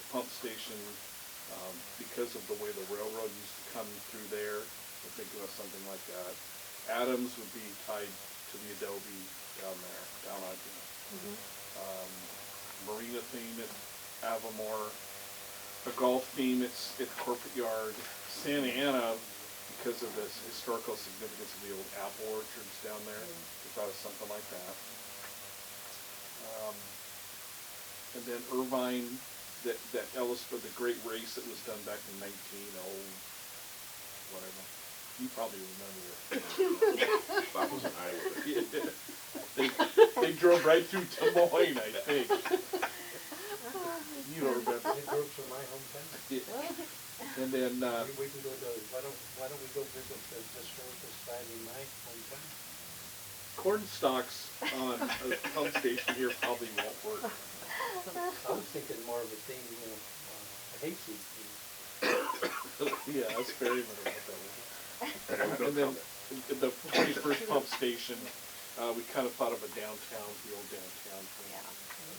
station, um, because of the way the railroad used to come through there, we're thinking of something like that. Adams would be tied to the adobe down there, down on, you know, Mm-hmm. um, marina theme at Avamore, a golf theme at, at Corporate Yard, Santa Ana, because of the historical significance of the old apple orchards down there, we thought of something like that. Um, and then Irvine, that, that Ellis, or the great race that was done back in nineteen oh, whatever, you probably remember it. Bob was an Iowa. They, they drove right through Des Moines, I think. You don't remember. It works in my hometown. And then, uh, We we can go to, why don't, why don't we go visit the historical society in my hometown? corn stalks on a pump station here probably won't work. I was thinking more of a thing, you know, uh, a hayseed thing. Yeah, that's very much what that was. And then, the twenty-first pump station, uh, we kind of thought of a downtown, the old downtown thing.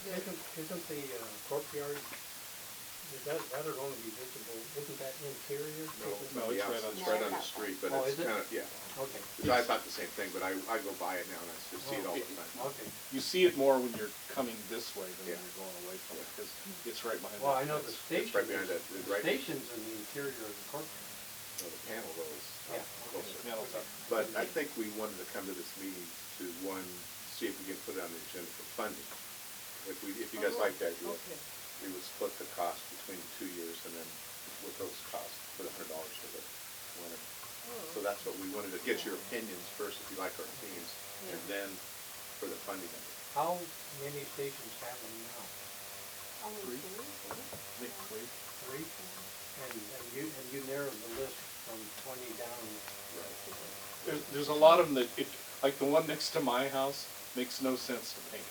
Isn't, isn't the uh, courtyard, is that, that'll only be visible, isn't that interior? Isn't- No, it's Yeah, right on- It's right on the street, but Oh, it's is it? kind of, yeah. Okay, 'Cause I thought the same thing, but I, I go by it now and I just see it all the time. okay. You see it more when you're coming this way than when Yeah. you're going away from it, because it's right behind. Well, that I know the fence. station, right behind is- that- the right- station's in the interior of the courtyard. So The panel Yeah, goes okay. closer. Metal top. But I think we wanted to come to this meeting to, one, see if we can put it on the agenda for funding. If we, if you guys like that, we would, we would split the cost between the two years and then with those costs, put a hundred dollars to the winner. So that's what we wanted to get your opinions first, if you like our opinions, and Yeah. then for the funding of it. How many stations have them now? Only Three. two? Nick, please. Three? And, and you, and you narrowed the list from twenty down. There's, there's a lot of them that, it, like the one next to my house, makes no sense to paint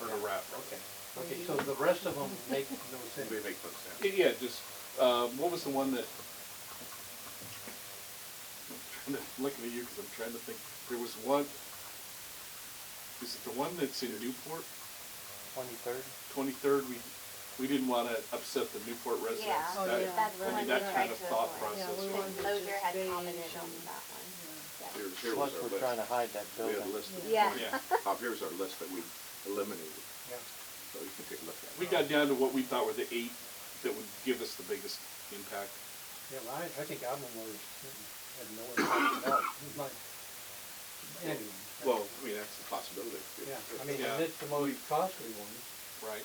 or to wrap. Okay, okay, so the rest of them make no sense. Maybe make more sense. It- Yeah, just, um, what was the one that? I'm Looking at you because I'm trying to think. There was one, is it the one that's in Newport? Twenty-third? Twenty-third, we, we didn't want to upset the Newport residents. Yeah, Oh, That- yeah. that's I the one mean, we that kind tried to of thought avoid. Yeah, we process. wanted And to Mosher had stay commented on in- that one. Yeah. Here, here was our list. hide that We had a list. of- Yeah. Yeah, Bob, here's our list that we eliminated, Yeah, so you can take a look at it. we got down to what we thought were the eight that would give us the biggest impact. yeah, well, I, I think album was, had no impact at all. It might- Anyway. Well, I mean, that's a possibility. Yeah, I mean, Yeah. and it's the most costly one. Right.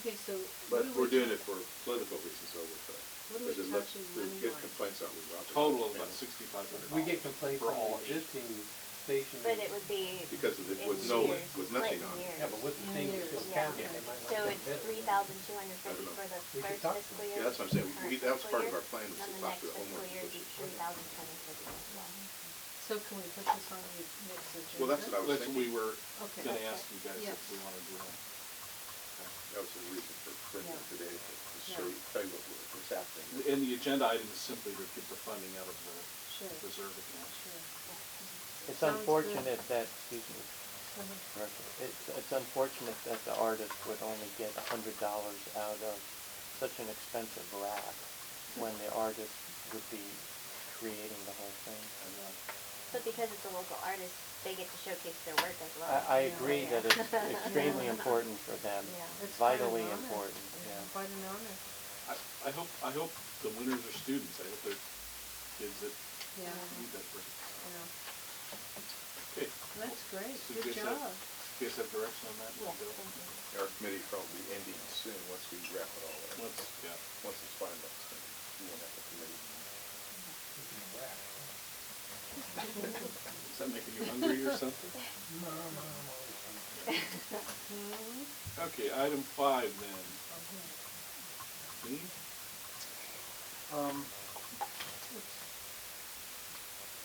Okay, so. But what are we're we doing talk- it for political reasons over there. What are we Because it looks, talking we get money-wise? complaints out with Robert. Total of about sixty-five hundred dollars. We get complaints For from all eight. existing stations. But it would be Because of it, with in no, years, with nothing split on it. years. Yeah, but with the things that Yeah. counted, Yeah. they might So not it's get three better. thousand two hundred fifty for the We could first talk to fiscal them. year. Yeah, that's what I'm saying. We- current we- that was fiscal part of year, our plan was to talk to the And then the next fiscal homeowners year, association. be three thousand twenty for the year as well. So can we put this on the next agenda? Well, that's what I was That's what we thinking. were Okay. gonna ask you guys Yeah. if we want to do that. That was the reason for printing it Yeah. today, to to Yeah. show you, tell you what was- what's happening. And the agenda item is simply to get the funding out of the Sure, sure. reserve account. It's Sounds good. unfortunate that, excuse me, Mhm. Director, it's, it's unfortunate that the artist would only get a hundred dollars out of such an expensive rack when the artist would be creating the whole thing. uh, But because it's a local artist, they get to showcase their work as well. I, I agree that it's Yeah. extremely important for them, Yeah. It's quite an vitally honor. important, yeah. Quite an honor, I, I hope, I hope the winners are students. I hope they're kids that yeah, Mm-hmm. need that person. you know, Okay, that's great, So good just a- job. you guys have direction on that? We'll Yeah, go. thank you. Our committee probably ending soon, once we wrap it all up. Once, yeah. Once it's finalized, then we won't have a committee. Is that making you hungry or something? Mhm. Okay, item five then. Mm-hmm. Dean? Um,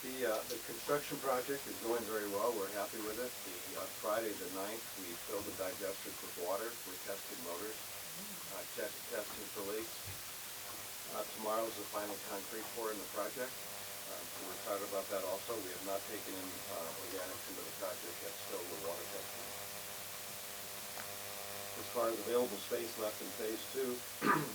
The, uh, the construction project is going very well, we're happy with it. The, uh, Friday the ninth, we filled the digesters with water, we're testing motors, uh, test, testing for leaks. Uh, tomorrow's the final concrete pour in the project, uh, so we're excited about that also. We have not taken any, uh, organics into the project yet, still we're water testing. As far as available space left in phase two,